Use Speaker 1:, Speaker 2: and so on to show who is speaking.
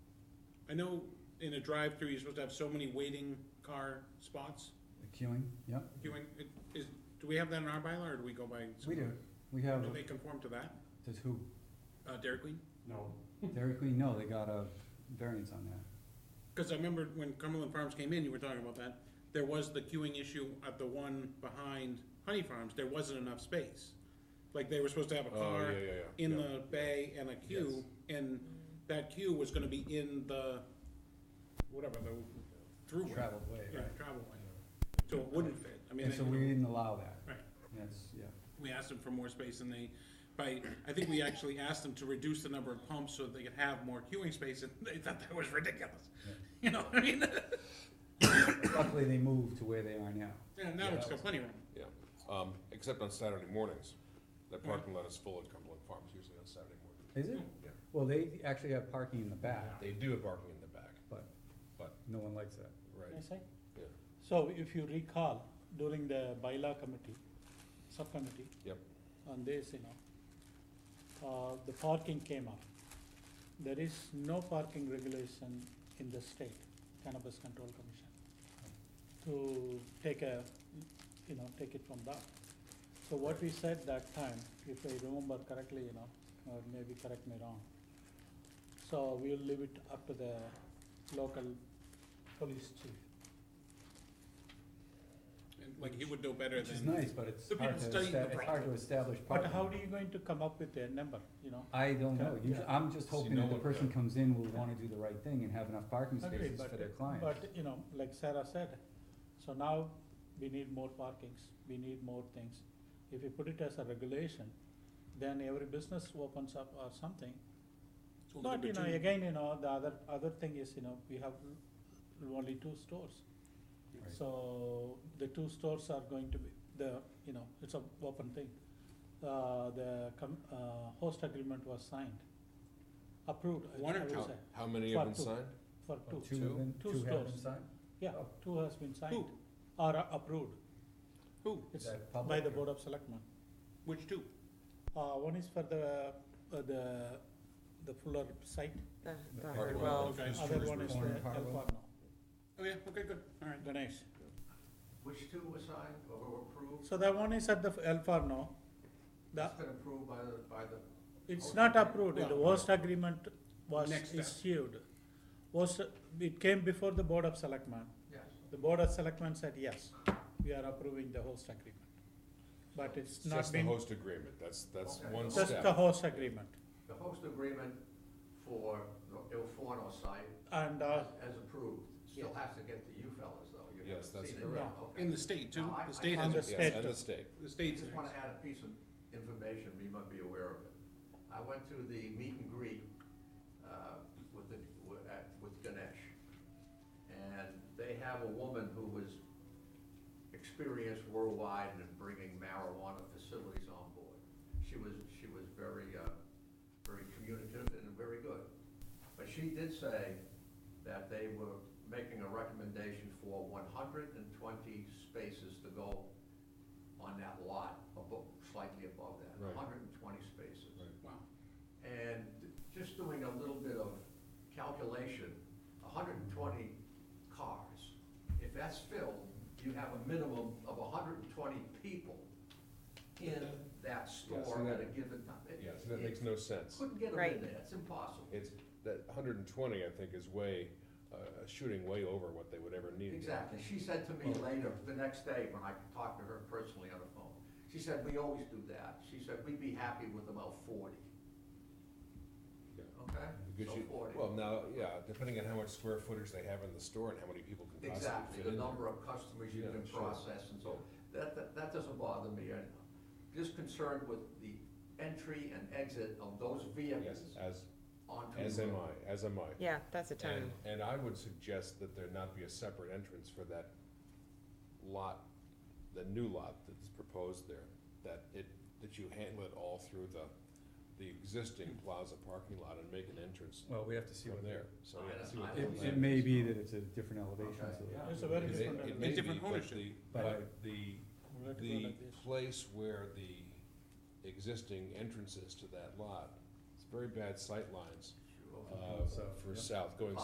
Speaker 1: I know in a drive-through, you're supposed to have so many waiting car spots,
Speaker 2: The queuing, yep,
Speaker 1: queuing, It- is, do we have that in our bylaw, or do we go by? some-
Speaker 2: we do. We have,
Speaker 1: Do they conform to that,
Speaker 2: does who?
Speaker 1: uh, Dairy Queen?
Speaker 3: No,
Speaker 2: Dairy Queen, no, they got a variance on that.
Speaker 1: Cause I remember when Cumberland Farms came in, you were talking about that, there was the queuing issue at the one behind Honey Farms, there wasn't enough space. Like, they were supposed to have a
Speaker 4: Oh, yeah,
Speaker 1: car
Speaker 4: yeah, yeah.
Speaker 1: in
Speaker 4: yeah.
Speaker 1: the bay and a queue, and that queue was gonna be in the, whatever, the throughway.
Speaker 2: Traveled way,
Speaker 1: Yeah,
Speaker 2: right?
Speaker 1: travel lane. So it wouldn't fit, I mean.
Speaker 2: And
Speaker 1: they-
Speaker 2: so we didn't allow that.
Speaker 1: Right.
Speaker 2: That's, yeah.
Speaker 1: We asked them for more space and they, by, I think we actually asked them to reduce the number of pumps so that they could have more queuing space and they thought that was ridiculous. You know what I mean?
Speaker 2: Luckily, they moved to where they are now.
Speaker 1: And now it's got plenty of room.
Speaker 4: Um, except on Saturday mornings, that parking lot is full at Cumberland Farms usually on Saturday morning.
Speaker 2: Is it?
Speaker 4: Yeah.
Speaker 2: Well, they actually have parking in the back,
Speaker 4: They do have parking in the back,
Speaker 2: but
Speaker 4: But-
Speaker 2: no one likes that.
Speaker 4: right?
Speaker 5: Yes, I.
Speaker 4: Yeah.
Speaker 5: So if you recall, during the bylaw committee, subcommittee.
Speaker 4: Yep.
Speaker 5: On this, you know, uh, the parking came up. There is no parking regulation in the state Cannabis Control Commission to take a, you know, take it from that. So what we said that time, if I remember correctly, you know, or maybe correct me wrong. So we'll leave it up to the local police chief.
Speaker 1: And like he would know better
Speaker 2: Which is
Speaker 1: than,
Speaker 2: nice, but it's
Speaker 1: The
Speaker 2: hard
Speaker 1: people
Speaker 2: to,
Speaker 1: studying the
Speaker 2: esta- it's hard to establish
Speaker 5: But
Speaker 2: parking.
Speaker 5: how do you going to come up with a number, you know?
Speaker 2: I don't know.
Speaker 5: Yeah.
Speaker 2: Usually, I'm just
Speaker 4: See,
Speaker 2: hoping
Speaker 4: no
Speaker 2: that the
Speaker 4: one-
Speaker 2: person
Speaker 4: yeah.
Speaker 2: comes in will wanna do the right thing and have enough parking
Speaker 5: Agree,
Speaker 2: spaces
Speaker 5: but-
Speaker 2: for their clients.
Speaker 5: But, you know, like Sarah said, so now we need more parkings, we need more things. If you put it as a regulation, then every business opens up or something.
Speaker 1: Well,
Speaker 5: But,
Speaker 1: number
Speaker 5: you know,
Speaker 1: two-
Speaker 5: again, you know, the other, other thing is, you know, we have l- only two stores.
Speaker 2: Right.
Speaker 5: So the two stores are going to be, the, you know, it's a open thing. Uh, the com- uh, host agreement was signed, approved, I
Speaker 1: One or
Speaker 5: I would
Speaker 1: two?
Speaker 5: say,
Speaker 4: How, how many have been
Speaker 5: Part two.
Speaker 4: signed?
Speaker 5: for
Speaker 2: Oh,
Speaker 5: two.
Speaker 2: Two have been,
Speaker 5: Two
Speaker 2: two have
Speaker 5: stores.
Speaker 2: been signed?
Speaker 5: Yeah,
Speaker 2: Oh.
Speaker 5: two has been signed
Speaker 1: Who?
Speaker 5: or a- approved.
Speaker 1: Who?
Speaker 5: It's
Speaker 2: that
Speaker 5: by
Speaker 2: public
Speaker 5: the
Speaker 2: or-
Speaker 5: Board of Selectmen.
Speaker 1: Which two?
Speaker 5: Uh, one is for the, uh, the, the Fuller site,
Speaker 6: The, the
Speaker 2: Hardwell.
Speaker 6: Hardwell,
Speaker 1: Okay.
Speaker 5: other one is the
Speaker 2: Corner
Speaker 5: El
Speaker 2: Hardwell.
Speaker 5: Corno.
Speaker 1: Oh, yeah, okay, good, all right.
Speaker 5: Ganesh.
Speaker 7: Which two were signed or were approved?
Speaker 5: So that one is at the El Farno. The,
Speaker 7: That's been approved by the, by the,
Speaker 5: it's
Speaker 7: Host
Speaker 5: not
Speaker 7: agreement.
Speaker 5: approved, the
Speaker 1: Yeah.
Speaker 5: host agreement was
Speaker 1: Next step.
Speaker 5: issued. Was, it came before the Board of Selectmen.
Speaker 7: yes.
Speaker 5: The Board of Selectmen said, yes, we are approving the host agreement. But it's
Speaker 4: It's
Speaker 5: not
Speaker 4: Just the
Speaker 5: been,
Speaker 4: host agreement, that's, that's
Speaker 7: Okay.
Speaker 4: one
Speaker 5: just the
Speaker 4: step.
Speaker 5: host agreement.
Speaker 7: The host agreement for the Il Forno site
Speaker 5: And, uh,
Speaker 7: as approved, still has to get to you fellas though. You
Speaker 4: Yes,
Speaker 7: haven't
Speaker 4: that's
Speaker 7: seen it
Speaker 4: correct.
Speaker 7: yet. Okay.
Speaker 1: In the state too,
Speaker 7: No, I-
Speaker 1: the
Speaker 7: I
Speaker 1: state
Speaker 5: found
Speaker 1: has,
Speaker 5: this-
Speaker 4: Yes,
Speaker 5: State.
Speaker 4: and the state.
Speaker 1: the
Speaker 7: I
Speaker 1: state's.
Speaker 7: just wanna add a piece of information, you might be aware of it. I went to the meet and greet, uh, with the, wi- at- with Ganesh. And they have a woman who was experienced worldwide in bringing marijuana facilities on board. She was, she was very, uh, very communicative and very good. But she did say that they were making a recommendation for one hundred and twenty spaces to go on that lot, above, slightly above that,
Speaker 4: Right.
Speaker 7: hundred and twenty spaces.
Speaker 1: Wow,
Speaker 7: And just doing a little bit of calculation, hundred and twenty cars, if that's filled, you have a minimum of hundred and twenty people in that store
Speaker 4: that-
Speaker 7: at a given time. It-
Speaker 4: Yes, that makes no sense.
Speaker 7: Couldn't get them
Speaker 6: Right.
Speaker 7: in there, it's impossible.
Speaker 4: It's, that hundred and twenty, I think, is way, uh, shooting way over what they would ever need.
Speaker 7: Exactly. She said to me later, the next day, when I talked to her personally on the phone, she said, we always do that. She said, we'd be happy with about forty.
Speaker 4: Yeah.
Speaker 7: Okay?
Speaker 4: Because
Speaker 7: So
Speaker 4: you-
Speaker 7: forty.
Speaker 4: Well, now, yeah, depending on how much square footage they have in the store and how many people can possibly
Speaker 7: Exactly,
Speaker 4: fit
Speaker 7: the
Speaker 4: in there.
Speaker 7: number of customers you
Speaker 4: Yeah,
Speaker 7: can
Speaker 4: sure.
Speaker 7: process and so, that, that, that doesn't bother me. I'm Just concerned with the entry and exit of those vehicles
Speaker 4: Yes, as,
Speaker 7: onto.
Speaker 4: as
Speaker 7: the
Speaker 4: am
Speaker 7: road.
Speaker 4: I, as am I.
Speaker 6: yeah, that's a town.
Speaker 4: And, and I would suggest that there not be a separate entrance for that lot, the new lot that's proposed there, that it, that you handle it all through the, the existing plaza parking lot and make an entrance
Speaker 2: Well, we have to see
Speaker 4: from
Speaker 2: what
Speaker 4: there, so.
Speaker 7: I
Speaker 4: yeah,
Speaker 7: don't-
Speaker 4: see what
Speaker 7: I
Speaker 4: the
Speaker 2: It,
Speaker 7: don't
Speaker 4: plan
Speaker 2: it may
Speaker 4: is.
Speaker 2: be that it's a different elevation,
Speaker 7: Okay,
Speaker 2: so.
Speaker 7: yeah.
Speaker 5: It's a very
Speaker 4: It may-
Speaker 5: different
Speaker 4: it
Speaker 5: elevation.
Speaker 4: may be,
Speaker 1: Different
Speaker 4: but
Speaker 1: ownership.
Speaker 4: the-
Speaker 2: But I-
Speaker 4: But the,
Speaker 5: we'll let it go
Speaker 4: the
Speaker 5: like this.
Speaker 4: place where the existing entrances to that lot, it's very bad sight lines,
Speaker 7: Sure.
Speaker 4: uh,
Speaker 2: So,
Speaker 4: for
Speaker 2: yeah.
Speaker 4: south, going